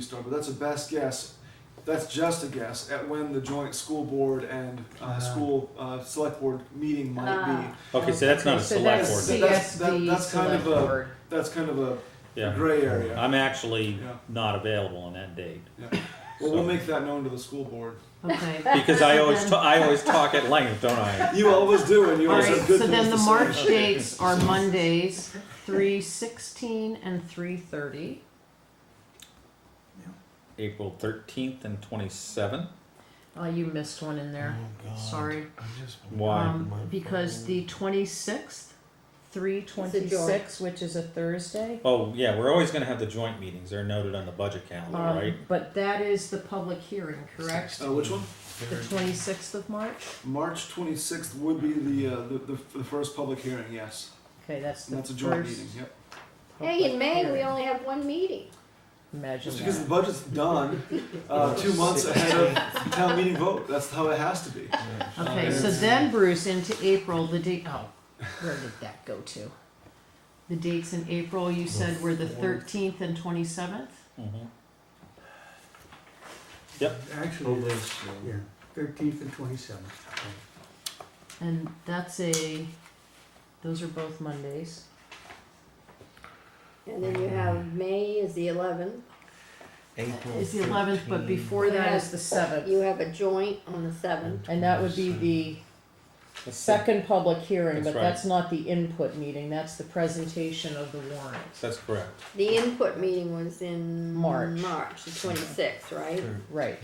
start, but that's a best guess. That's just a guess at when the joint school board and uh, Ah. school uh, select board meeting might Ah. be. Okay, so that's not a So select that's board. That's- that- CSD that's kind of select a- board. That's kind of a Yeah, Ah. gray area. I'm actually Yeah. not available on that date well, we'll make that known to the school board. Okay. because I always ta- I always talk at length, don't I? You always do, and you All always right, have good so things then the to March say. dates are Mondays, three sixteen and three thirty, April 13th and 27th. oh, you missed one in there, Oh, Uh, sorry. I'm just Why? Um, because the twenty-sixth, three twenty-six, which is a Thursday. Oh yeah, we're always going to have the joint meetings. They're noted on the budget calendar, um, right? But that is the public hearing, correct? Uh, which one? The twenty-sixth of March? March 26th would be the, uh, the, the the first public hearing. Yes, Okay, that's the and that's first. a joint meeting. Yep. Hey, in May, we public only have one meeting. hearing. Imagine Just because the that. budget's done uh, two months ahead of town meeting vote. That's how it has to be. Okay, so then Bruce, into April, the date, oh, where did that go to? The dates in April, you said were the thirteenth and twenty-seventh? Mhm. Oh, Actually, this, yeah, yeah. thirteenth and twenty-seventh. And that's a, those are both Mondays. And then you have May is the eleventh. April It's the eleventh, but 13th. before that is the You seventh. have a joint on the seventh. And that would be the Let's see. second public hearing, but That's right. that's not the input meeting, that's the presentation of the warrant. That's correct. The input meeting was in March. March, the twenty-sixth, right? Thir- Right.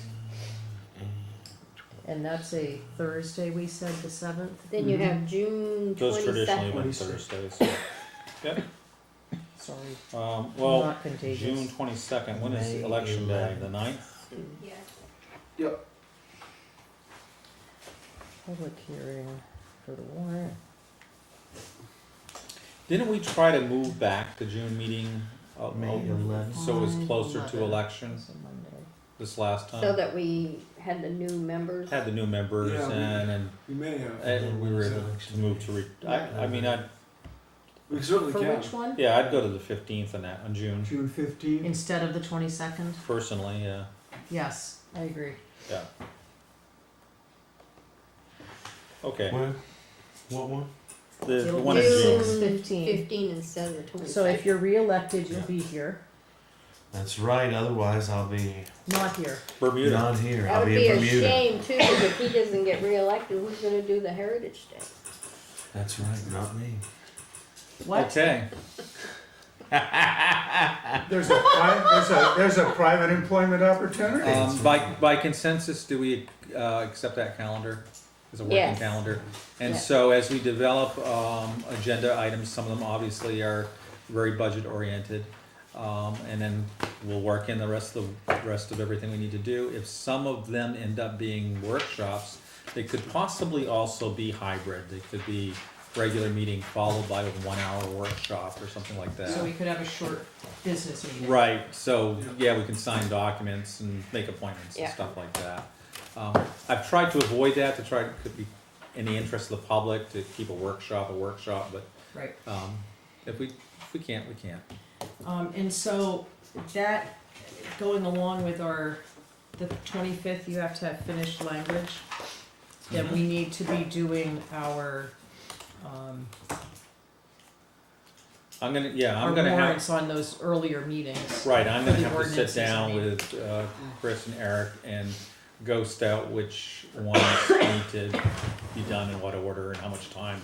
And that's a Thursday, we said, the seventh? Then you have June Those traditionally twenty-second. went 22nd. Thursdays. Sorry, Um, I'm well, not contagious. June 22nd. When is May election day? 11th. The 9th? Public hearing for the warrant. Didn't we try to move back the June meeting? uh, May over- 11th. So it was closer to Eleven. election It's a Monday. this last time. So that we had the new members. had the new members Yeah, we- and, We may have. and, and we were able to move to. Re- I, I mean, I We certainly For can. which one? yeah, I'd go to the fifteenth on that on June June fifteenth, Instead of the twenty-second? personally. Yeah, Yes, I agree. yeah. Okay, What? What one? the, the It'll one in be June. June. 15. Fifteen instead of the twenty-second. So if you're reelected, you'll be here, That's right. Otherwise, I'll be not here. Bermuda. not here. That I'll would be, be in a Bermuda. shame too, because if he doesn't get reelected, who's gonna do the Heritage Day? That's right. Not me. What? Okay. there's a, pri- there's a, there's a private employment Oh, opportunity. Um, by by consensus, do we uh, accept that calendar as a working Yes. calendar? And Yes. so as we develop um, agenda items, some of them obviously are very budget oriented. Um, and then we'll work in the rest of the rest of everything we need to do. If some of them end up being workshops, they could possibly also be hybrid. They could be regular meeting followed by a one hour workshop or something like that. So we could have a short business meeting. Right, so, yeah, we can sign documents and make appointments and Yeah. stuff like that. Um, I've tried to avoid that, to try, to be in the interest of the public, to keep a workshop a workshop, but, Right, um, if we, if we can't, we can't. um, and so that, going along with our, the twenty-fifth, you have to have finished language. Then Mm-hmm. we need to be doing our, um, I'm gonna, yeah, our I'm gonna have, warrants on those earlier meetings. right, I'm gonna for the have to sit ordinances, I down mean. with, uh, Chris and Eric and ghost out which ones need to be done in what order and how much time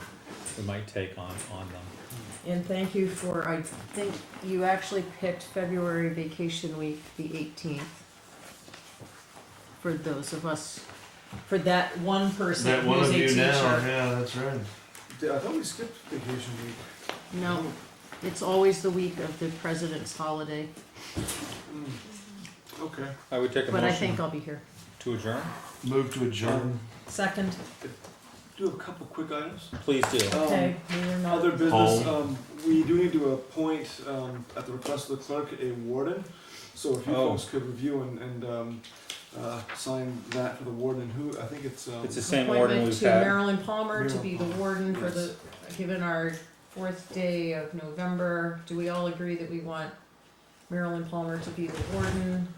we might take on, on them. And thank you for, I think you actually picked February vacation week, the eighteenth. For those of us, for that one person That one who's of a you now. teacher. Yeah, that's right. Yeah, I thought we skipped vacation week. No, it's always the week of the president's holiday, Mm. Okay. I would take a but I motion think I'll be here. to adjourn, Move to adjourn. Second, Um, Do a couple quick items. please do. Um, okay, we are not. Other business, Home. um, we do need to appoint, um, at the request of the clerk, a warden. So if you Oh. folks could review and, and, um, uh, sign that for the warden, who, I think it's, um, It's the same warden Appointment we've to had. Marilyn Palmer to be the Marilyn warden for yes. the, given our fourth day of November, do we all agree that we want Marilyn Palmer to be the warden.